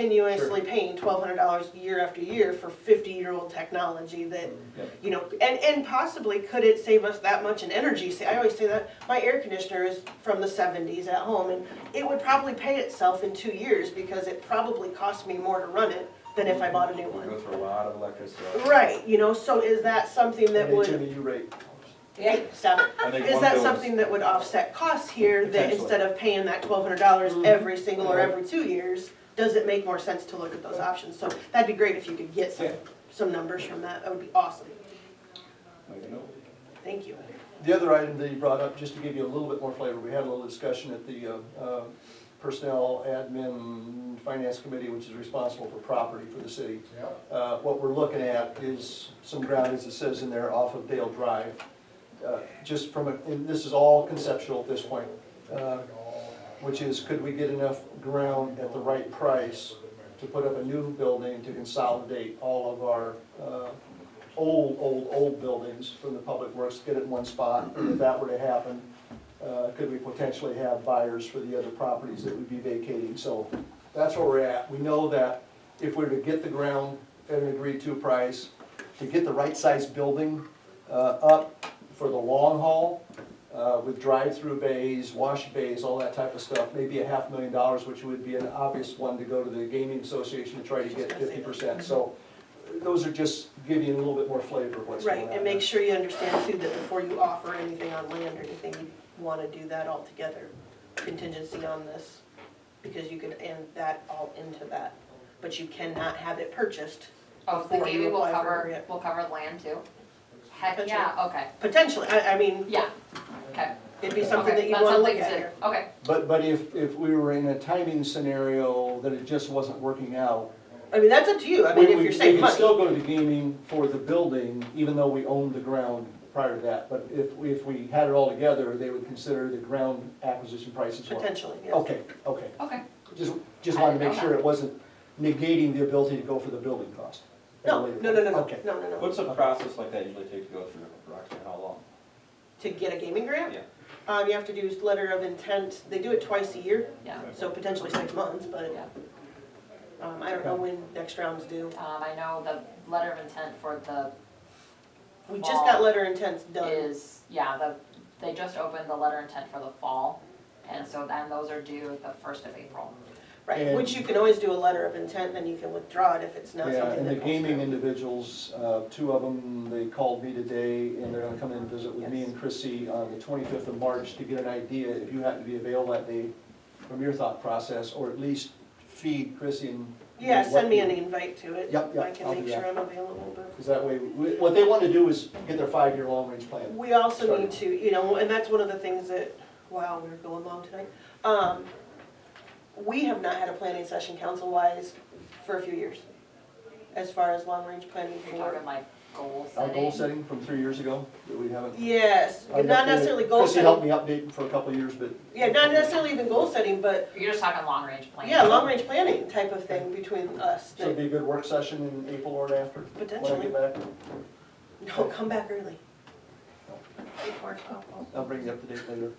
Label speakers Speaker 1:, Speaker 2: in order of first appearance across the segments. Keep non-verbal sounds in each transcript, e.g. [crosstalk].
Speaker 1: continuously paying twelve hundred dollars year after year for fifty-year-old technology that,
Speaker 2: Yeah.
Speaker 1: you know, and, and possibly could it save us that much in energy? See, I always say that, my air conditioner is from the seventies at home, and it would probably pay itself in two years because it probably cost me more to run it than if I bought a new
Speaker 2: We go
Speaker 1: one.
Speaker 2: through a lot of electricity.
Speaker 1: Right, you know, so is that something that
Speaker 3: Hey,
Speaker 1: would,
Speaker 3: Jimmy, you rate.
Speaker 1: yeah, stop it.
Speaker 2: I think
Speaker 1: Is
Speaker 2: one
Speaker 1: that
Speaker 2: bill
Speaker 1: something that would offset costs here, that
Speaker 2: Potentially.
Speaker 1: instead of paying that twelve hundred dollars
Speaker 4: Mm-hmm.
Speaker 1: every single or
Speaker 2: Yeah.
Speaker 1: every two years, does it make more sense to look at those options? So that'd be great if you could get some,
Speaker 2: Yeah.
Speaker 1: some numbers from that, that would be awesome,
Speaker 2: Make a note.
Speaker 1: thank you.
Speaker 3: The other item that you brought up, just to give you a little bit more flavor, we had a little discussion at the uh, uh, Personnel Admin Finance Committee, which is responsible for property for the city. Uh, What we're looking at is some ground, as it says in there, off of Dale Drive. Uh, Just from, a and this is all conceptual at this point, uh, which is, could we get enough ground at the right price to put up a new building to consolidate all of our uh, old, old, old buildings from the public works, get it in one spot? And if that were to happen, uh, could we potentially have buyers for the other properties that would be vacating? So that's where we're at. We know that if we were to get the ground at an agreed-to price, to get the right-sized building uh, up for the long haul, uh, with drive-through bays, wash bays, all that type of stuff, maybe a half million dollars, which would be an obvious one to go to the gaming association to try to get fifty percent. So those are just giving you a little bit more flavor of what's going on.
Speaker 1: Right, and make sure you understand too, that before you offer anything on land or anything, you wanna do that all together, contingency on this, because you could end that all into that, but you cannot have it purchased
Speaker 4: Oh, so the
Speaker 1: before you
Speaker 4: gaming will
Speaker 1: apply for
Speaker 4: cover,
Speaker 1: it.
Speaker 4: will cover land too? Heck, yeah, okay,
Speaker 1: Potentially, I, I mean,
Speaker 4: yeah, okay.
Speaker 1: it'd be something
Speaker 4: okay,
Speaker 1: that you
Speaker 4: that's
Speaker 1: wanna look at
Speaker 4: something
Speaker 1: here.
Speaker 4: to- Okay,
Speaker 3: But, but if, if we were in a timing scenario that it just wasn't working out.
Speaker 1: I mean, that's up to you, I mean,
Speaker 3: we-
Speaker 1: if
Speaker 3: we-
Speaker 1: you're saving
Speaker 3: We could
Speaker 1: money.
Speaker 3: still go to the gaming for the building, even though we owned the ground prior to that. But if, if we had it all together, they would consider the ground acquisition price as well.
Speaker 1: Potentially, yes.
Speaker 3: Okay, okay.
Speaker 4: okay,
Speaker 3: Just, just
Speaker 4: I
Speaker 3: wanted to
Speaker 4: didn't
Speaker 3: make
Speaker 4: know
Speaker 3: sure it wasn't negating the ability to go for the building cost.
Speaker 1: No, no, no, no, no,
Speaker 3: Okay.
Speaker 1: no, no, no.
Speaker 2: What's a process like that usually take to go through, Roxanne, how long?
Speaker 1: To get a gaming grant?
Speaker 2: Yeah.
Speaker 1: Um, you have to do letter of intent, they do it twice a year,
Speaker 4: yeah,
Speaker 1: so potentially six months, but,
Speaker 4: yeah.
Speaker 1: um, I don't know when next round's due.
Speaker 4: Um, I know the letter of intent for the
Speaker 1: We just got letter intents done,
Speaker 4: is, yeah, the, they just opened the letter of intent for the fall. And so then those are due the first of April.
Speaker 1: right,
Speaker 3: And-
Speaker 1: which you can always do a letter of intent, then you can withdraw it if it's not
Speaker 3: Yeah,
Speaker 1: something
Speaker 3: and the
Speaker 1: that goes
Speaker 3: gaming
Speaker 1: through.
Speaker 3: individuals, uh, two of them, they called me today, and they're gonna come in and visit with me
Speaker 1: Yes.
Speaker 3: and Chrissy on the twenty-fifth of March to get an idea, if you happen to be available that day, from your thought process, or at least feed Chrissy and.
Speaker 1: Yeah,
Speaker 3: what
Speaker 1: send me
Speaker 3: you-
Speaker 1: an e- invite to it.
Speaker 3: Yep, yep,
Speaker 1: I can
Speaker 3: I'll do
Speaker 1: make sure
Speaker 3: that.
Speaker 1: I'm available, but.
Speaker 3: Cause that way, we- what they wanna do is get their five-year long-range plan.
Speaker 1: We also need to, you know, and that's one of the things that, wow, we're going long tonight. Um, we have not had a planning session council-wise for a few years, as far as long-range planning
Speaker 4: You're
Speaker 1: for.
Speaker 4: talking like goal
Speaker 3: Our
Speaker 4: setting.
Speaker 3: goal setting from three years ago, that we haven't.
Speaker 1: Yes,
Speaker 3: I
Speaker 1: not
Speaker 3: updated-
Speaker 1: necessarily goal
Speaker 3: Chrissy helped
Speaker 1: setting,
Speaker 3: me update for a couple of years, but.
Speaker 1: yeah, not necessarily even goal setting, but,
Speaker 4: You're just talking long range planning.
Speaker 1: yeah, long-range planning type of thing between us.
Speaker 3: So it'd be a good work session in April or after. when I get
Speaker 1: Potentially.
Speaker 3: back.
Speaker 1: No, come back early. Take more time.
Speaker 3: I'll bring you up to date later.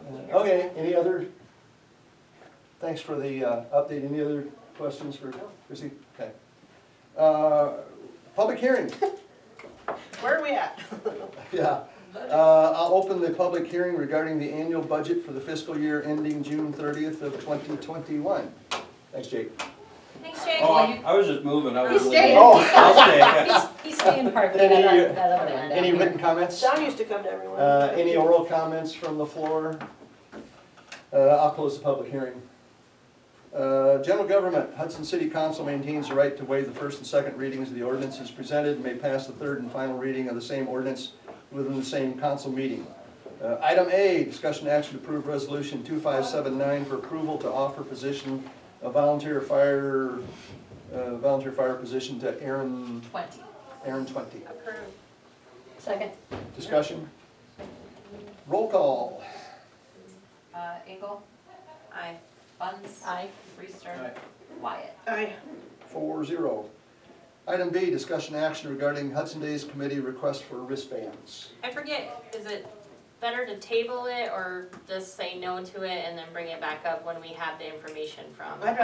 Speaker 3: Uh, Okay, any other, thanks for the uh, update, any other questions for Chrissy? Okay. Uh, Public hearing,
Speaker 1: Where are we at?
Speaker 3: [laughs] yeah. Uh, I'll open the public hearing regarding the annual budget for the fiscal year ending June thirtieth of twenty twenty-one. Thanks, Jake.
Speaker 5: Thanks, Jake.
Speaker 2: Oh, I- I was just moving, I was.
Speaker 5: He's
Speaker 2: leaving.
Speaker 5: staying.
Speaker 3: Oh, [laughs]
Speaker 2: I'll stay, yeah.
Speaker 5: He's, he's staying part of that,
Speaker 3: Any, uh,
Speaker 5: other- that other
Speaker 3: [laughs]
Speaker 5: end.
Speaker 3: any written comments?
Speaker 1: John used to come to everyone.
Speaker 3: Uh, any oral comments from the floor? Uh, I'll close the public hearing. Uh, general government, Hudson City Council maintains the right to waive the first and second readings of the ordinances presented and may pass the third and final reading of the same ordinance within the same council meeting. Uh, item A, discussion action to approve resolution two five seven nine for approval to offer position of volunteer fire, uh, volunteer fire position to Aaron,
Speaker 4: Twenty.
Speaker 3: Aaron Twenty.
Speaker 5: Approved. Second.
Speaker 3: Discussion? Roll call.
Speaker 4: Uh, Engel,
Speaker 5: Aye.
Speaker 4: Buns,
Speaker 5: Aye.
Speaker 4: Reister, Wyatt.
Speaker 1: Aye.
Speaker 3: Four zero. Item B, discussion action regarding Hudson Days Committee request for wristbands.
Speaker 5: I forget, is it
Speaker 6: better to table it or just say no to it and then bring it back up when we have the information from?
Speaker 1: I'd